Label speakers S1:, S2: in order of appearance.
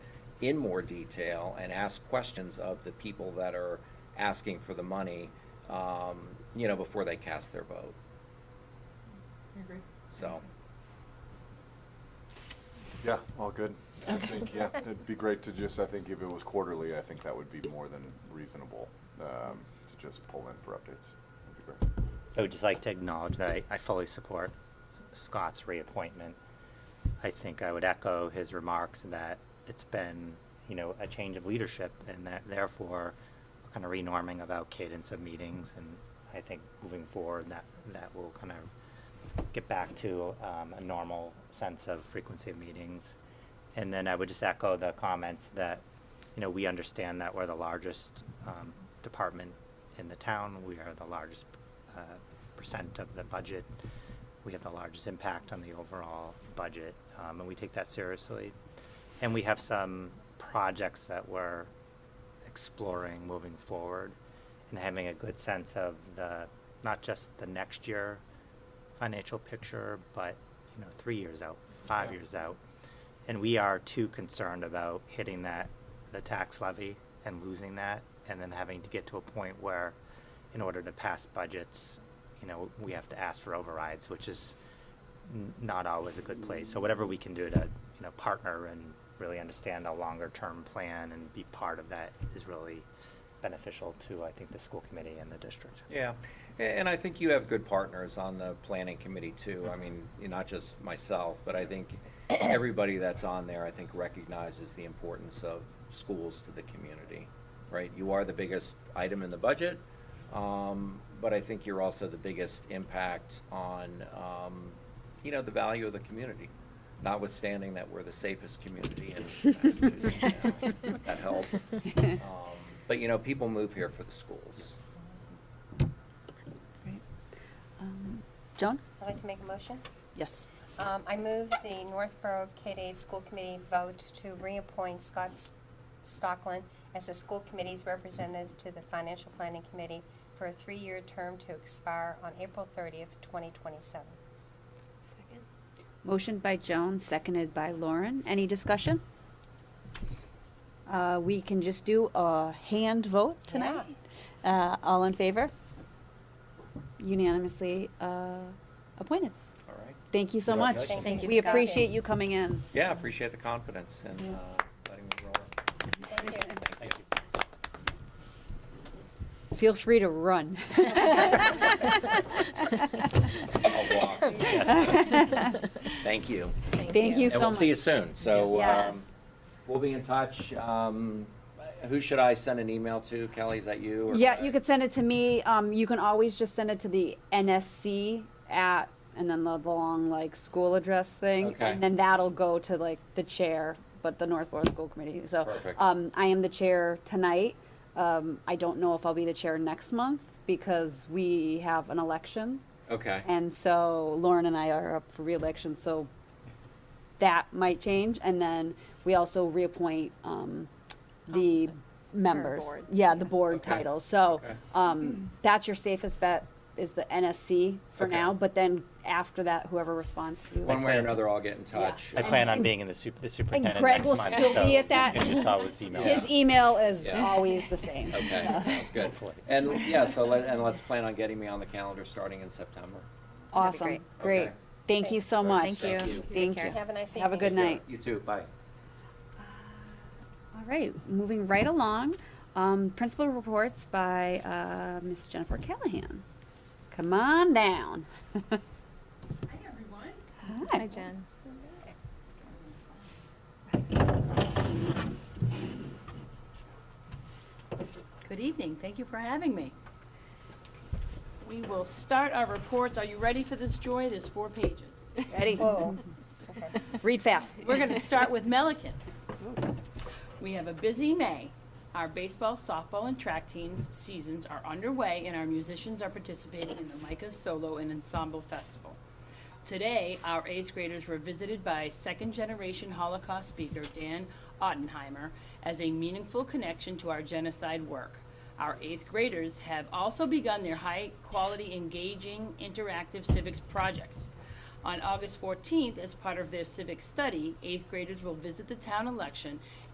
S1: in more detail and ask questions of the people that are asking for the money, um, you know, before they cast their vote.
S2: I agree.
S1: So,
S3: Yeah, all good. I
S4: Okay.
S3: think, yeah, it'd be great to just, I think if it was quarterly, I think that would be more than reasonable, um, to just pull in for updates. That'd be great.
S5: I would just like to acknowledge that I, I fully support Scott's reappointment. I think I would echo his remarks that it's been, you know, a change of leadership and that therefore we're kind of renorming about cadence of meetings and I think moving forward that, that will kind of get back to, um, a normal sense of frequency of meetings. And then I would just echo the comments that, you know, we understand that we're the largest um, department in the town. We are the largest uh, percent of the budget. We have the largest impact on the overall budget, um, and we take that seriously. And we have some projects that we're exploring moving forward and having a good sense of the, not just the next year financial picture, but, you know, three years out, five
S3: Yeah.
S5: years out. And we are too concerned about hitting that, the tax levy and losing that, and then having to get to a point where, in order to pass budgets, you know, we have to ask for overrides, which is n- not always a good place. So whatever we can do to, you know, partner and really understand a longer-term plan and be part of that is really beneficial to, I think, the school committee and the district.
S1: yeah, A- and I think you have good partners on the planning committee too. I mean, not just myself, but I think everybody that's on there, I think recognizes the importance of schools to the community, right? You are the biggest item in the budget, um, but I think you're also the biggest impact on, um, you know, the value of the community, notwithstanding that we're the safest community in Massachusetts. now. That helps. Um, But, you know, people move here for the schools.
S4: Right. Um, Joan?
S6: I'd like to make a motion.
S4: Yes.
S6: Um, I move the Northborough K-8 School Committee vote to reappoint Scott S- Stockland as the school committee's representative to the Financial Planning Committee for a three-year term to expire on April 30th, 2027.
S7: Second.
S4: Motion by Joan, seconded by Lauren. Any discussion? Uh, we can just do a hand vote tonight. Uh, all in favor? Unanimously, uh, appointed.
S1: All right.
S4: Thank you so much.
S1: Congratulations.
S6: Thank you,
S4: We
S6: Scott.
S4: appreciate you coming in.
S1: Yeah, I appreciate the confidence and
S4: Yeah.
S1: uh, letting me roll.
S6: Thank you.
S5: Thank you.
S4: Feel free to run.
S1: I'll walk. Thank you.
S4: Thank you so much.
S1: And we'll see you soon. So
S6: Yes.
S1: um, we'll be in touch. Um, Who should I send an email to? Kelly, is that you? or-
S4: Yeah, you could send it to me. Um, you can always just send it to the NSC at, and then the long like school address thing,
S1: Okay.
S4: and then that'll go to like the chair, but the Northborough School Committee. So,
S1: Perfect.
S4: um, I am the chair tonight. Um, I don't know if I'll be the chair next month because we have an election,
S1: Okay.
S4: and so Lauren and I are up for reelection. So that might change, and then we also reappoint um, the
S2: Officer.
S4: members.
S2: boards,
S4: Yeah, the board
S1: Okay.
S4: title. So
S1: Okay.
S4: um, that's your safest bet is the NSC for
S1: Okay.
S4: now, but then after that, whoever responds to you.
S1: One way or another, I'll get in touch.
S5: I plan on being in the super, the superintendent
S4: Greg
S5: next
S4: will
S5: month,
S4: still
S5: so
S4: be at that.
S5: you can just always email.
S4: His email is
S1: Yeah.
S4: always the same.
S1: Okay, sounds good.
S5: Hopefully.
S1: And yeah, so let, and let's plan on getting me on the calendar starting in September.
S4: Awesome.
S2: great.
S4: Great.
S1: Okay.
S4: Thank you so much.
S2: Thank you.
S4: Thank
S6: Karen,
S4: you.
S6: Have a nice evening.
S4: Have a good night.
S1: You too, bye.
S4: All right, moving right along, um, principal reports by, uh, Ms. Jennifer Callahan. Come on down. Hi, everyone. Hi.
S7: Jen.
S2: Good evening, thank you for having me. We will start our reports. Are you ready for this, Joy? There's four pages.
S4: Ready?
S6: Whoa.
S4: Read fast.
S2: We're going to start with Melican. We have a busy May. Our baseball, softball, and track teams seasons are underway, and our musicians are participating in the Micah Solo and Ensemble Festival. Today, our eighth graders were visited by second-generation Holocaust speaker Dan Ottenheimer as a meaningful connection to our genocide work. Our eighth graders have also begun their high-quality, engaging, interactive civics projects. On August 14th, as part of their civic study, eighth graders will visit the town election